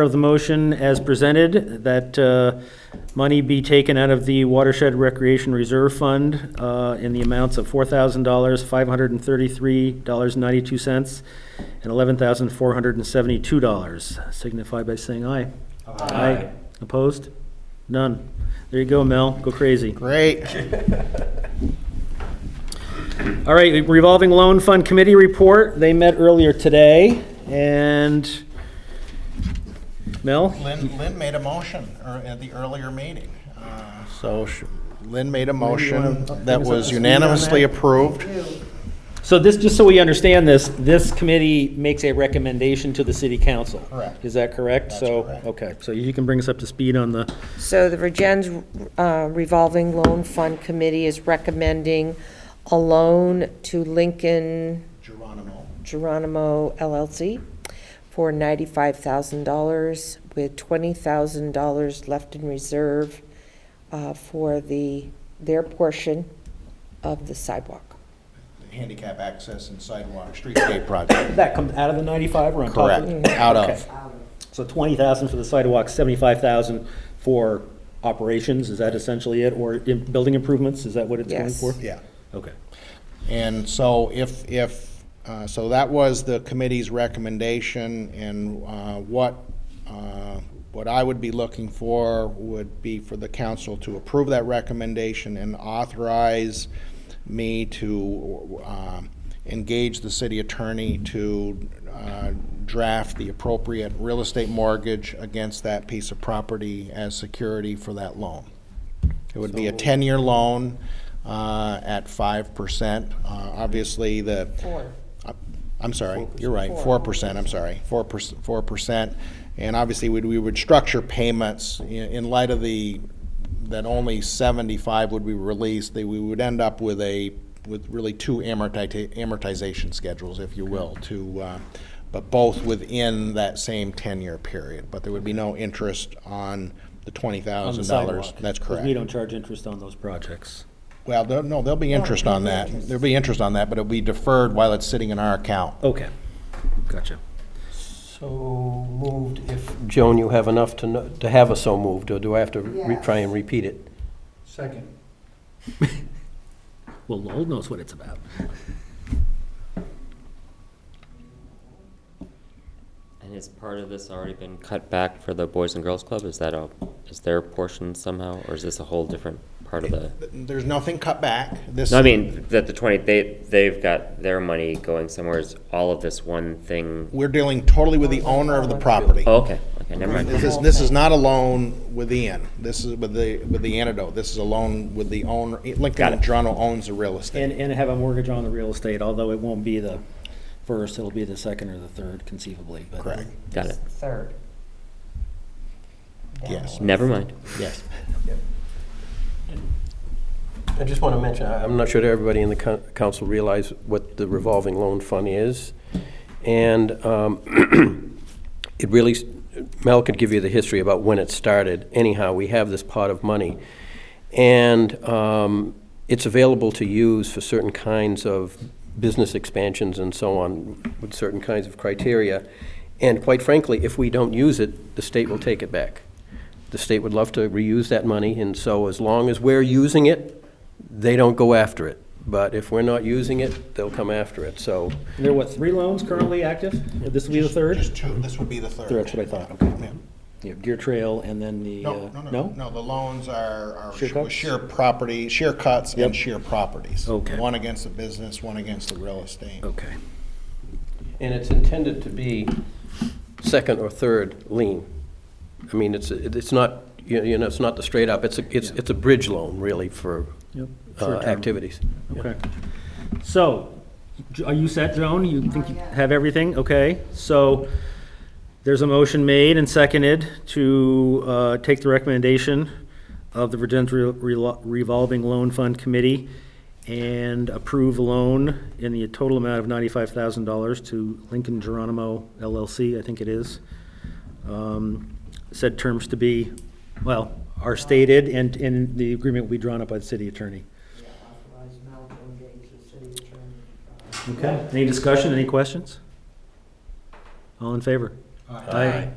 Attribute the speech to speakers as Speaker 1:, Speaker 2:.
Speaker 1: of the motion as presented, that uh, money be taken out of the Watershed Recreation Reserve Fund uh, in the amounts of $4,000, $533.92, and $11,472. Signify by saying aye. Aye. Opposed? None. There you go, Mel. Go crazy.
Speaker 2: Great.
Speaker 1: All right, revolving loan fund committee report. They met earlier today, and Mel?
Speaker 2: Lynn, Lynn made a motion er, at the earlier meeting. Uh, So sh- Lynn made a motion
Speaker 1: wanna bring
Speaker 2: that
Speaker 1: us up to
Speaker 2: was
Speaker 1: speed on
Speaker 2: unanimously
Speaker 1: that?
Speaker 2: approved.
Speaker 1: So this, just so we understand this, this committee makes a recommendation to the city council?
Speaker 2: Correct.
Speaker 1: Is that correct?
Speaker 2: That's
Speaker 1: So,
Speaker 2: correct.
Speaker 1: okay, so you can bring us up to speed on the,
Speaker 3: So the Regen's uh, revolving loan fund committee is recommending a loan to Lincoln
Speaker 2: Geronimo.
Speaker 3: Geronimo LLC for $95,000 with $20,000 left in reserve uh, for the, their portion of the sidewalk.
Speaker 2: Handicap access and sidewalk streetscape project.
Speaker 1: that comes out of the 95 or on top of it?
Speaker 2: Correct, out
Speaker 1: Okay.
Speaker 2: of.
Speaker 1: So 20,000 for the sidewalk, 75,000 for operations, is that essentially it? Or in- building improvements, is that what it's going
Speaker 3: Yes.
Speaker 1: for?
Speaker 2: Yeah.
Speaker 1: Okay.
Speaker 2: And so if, if, uh, so that was the committee's recommendation, and uh, what, uh, what I would be looking for would be for the council to approve that recommendation and authorize me to um, engage the city attorney to uh, draft the appropriate real estate mortgage against that piece of property as security for that loan. It would be a 10-year loan uh, at 5%. Uh, Obviously, the.
Speaker 3: Four.
Speaker 2: I- I'm sorry, you're right, 4%, I'm sorry, 4%. 4%. And obviously, we'd- we would structure payments i- in light of the, that only 75 would be released, that we would end up with a, with really two amorti- amortization schedules, if you will, to, uh, but both within that same 10-year period. But there would be no interest on the
Speaker 1: On the
Speaker 2: $20,000.
Speaker 1: sidewalk.
Speaker 2: That's
Speaker 1: 'Cause
Speaker 2: correct.
Speaker 1: we don't charge interest on those projects.
Speaker 2: Well, there- no, there'll be interest on that. There'll be interest on that, but it'll be deferred while it's sitting in our account.
Speaker 1: Okay, gotcha.
Speaker 4: So moved if... Joan, you have enough to, kno- to have a so moved, or do I have to re- try and repeat it?
Speaker 5: Second.
Speaker 1: Well, Lowell knows what it's about.
Speaker 6: And has part of this already been cut back for the Boys and Girls Club? Is that a, is their portion somehow, or is this a whole different part of the?
Speaker 2: There's nothing cut back. This,
Speaker 6: No, I mean, that the twenty, they, they've got their money going somewhere, is all of this one thing?
Speaker 2: we're dealing totally with the owner of the property.
Speaker 6: Oh, okay, okay, never mind.
Speaker 2: This is, this is not a loan with Ian. This is with the, with the antidote. This is a loan with the owner.
Speaker 6: Got
Speaker 2: Lincoln
Speaker 6: it.
Speaker 2: Toronto owns the real estate.
Speaker 1: And, and have a mortgage on the real estate, although it won't be the first, it'll be the second or the third conceivably, but.
Speaker 2: Correct,
Speaker 6: Got it,
Speaker 3: Third.
Speaker 2: yes,
Speaker 6: never mind.
Speaker 2: yes.
Speaker 4: I just want to mention, I- I'm not sure that everybody in the coun- council realize what the revolving loan fund is, and um, it really, s- Mel could give you the history about when it started. Anyhow, we have this pot of money, and um, it's available to use for certain kinds of business expansions and so on, with certain kinds of criteria. And quite frankly, if we don't use it, the state will take it back. The state would love to reuse that money, and so as long as we're using it, they don't go after it. But if we're not using it, they'll come after it, so.
Speaker 1: There are what, three loans currently active? This will be the third?
Speaker 2: Just two, this would be the third.
Speaker 1: That's what I thought, okay.
Speaker 2: Yeah.
Speaker 1: You have Deer Trail and then the,
Speaker 2: No,
Speaker 1: uh,
Speaker 2: no, no,
Speaker 1: no?
Speaker 2: no, the loans are, are
Speaker 1: Share cuts?
Speaker 2: share property, share cuts and share properties.
Speaker 1: Okay.
Speaker 2: One against the business, one against the real estate.
Speaker 1: Okay.
Speaker 4: And it's intended to be second or third lien. I mean, it's, it's not, you you know, it's not the straight up, it's, a- it's,
Speaker 1: Yeah.
Speaker 4: it's a bridge loan, really, for
Speaker 1: Yep.
Speaker 4: uh,
Speaker 1: Short term.
Speaker 4: activities.
Speaker 1: Okay. So, J- are you set, Joan? You think you have everything? Okay, so there's a motion made and seconded to uh, take the recommendation of the Virgins Revolving Loan Fund Committee and approve loan in the total amount of $95,000 to Lincoln Geronimo LLC, I think it is. Um, Said terms to be, well, are stated and, and the agreement will be drawn up by the city attorney.
Speaker 7: authorize Mel to engage the city attorney. uh,
Speaker 1: Okay, any discussion, any questions? All in favor? Aye.